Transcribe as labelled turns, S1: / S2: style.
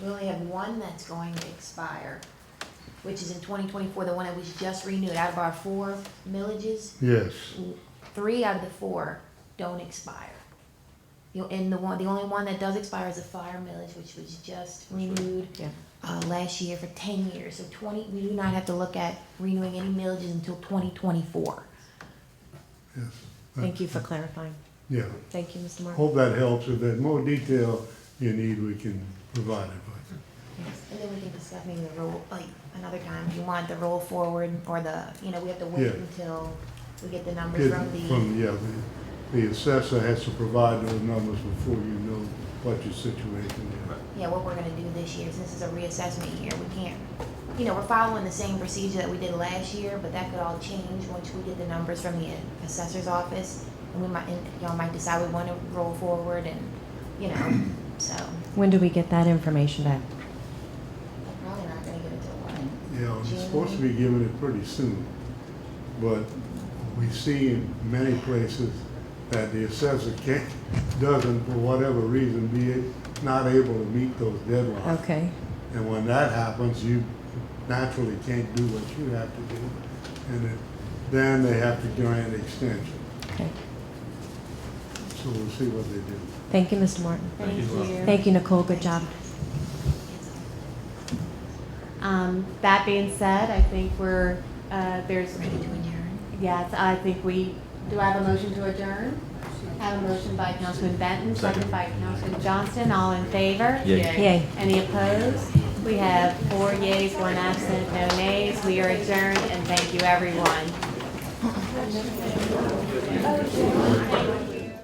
S1: We only have one that's going to expire, which is in twenty twenty-four, the one that was just renewed. Out of our four millages,
S2: Yes,
S1: three out of the four don't expire. You know, and the one, the only one that does expire is the fire millage, which was just renewed
S3: Yeah.
S1: uh, last year for ten years. So twenty, we do not have to look at renewing any millages until twenty twenty-four.
S2: yes,
S3: Thank you for clarifying.
S2: yeah.
S3: Thank you, Mr. Martin.
S2: Hope that helps. If there's more detail you need, we can provide it. but-
S1: And then we can discuss maybe the roll, like, another time, if you want the roll forward or the, you know, we have to wait
S2: Yeah.
S1: until we get the numbers
S2: Get
S1: from the,
S2: From, yeah, the, the assessor has to provide those numbers before you know what your situation is.
S1: yeah, what we're gonna do this year, since this is a reassessment year, we can't, you know, we're following the same procedure that we did last year, but that could all change once we get the numbers from the assessor's office, and we might, and y'all might decide we wanna roll forward and, you know, so,
S3: When do we get that information back?
S1: we're probably not gonna get it till one.
S2: Yeah, it's supposed to be giving it pretty soon, but we see in many places that the assessor can't, doesn't, for whatever reason, be not able to meet those deadlines.
S3: Okay,
S2: And when that happens, you naturally can't do what you have to do, and it- then they have to grant extension.
S3: okay.
S2: So we'll see what they do.
S3: Thank you, Mr. Martin.
S1: Thank you.
S3: Thank you, Nicole. Good job.
S4: Um, that being said, I think we're, uh, there's,
S1: Ready to adjourn?
S4: yes, I think we, do I have a motion to adjourn? I have a motion by Councilman Benton, second by Councilman Johnston, all in favor?
S5: Yay.
S3: Yay.
S4: Any opposed? We have four yeas, one absent, no nays. We are adjourned, and thank you, everyone.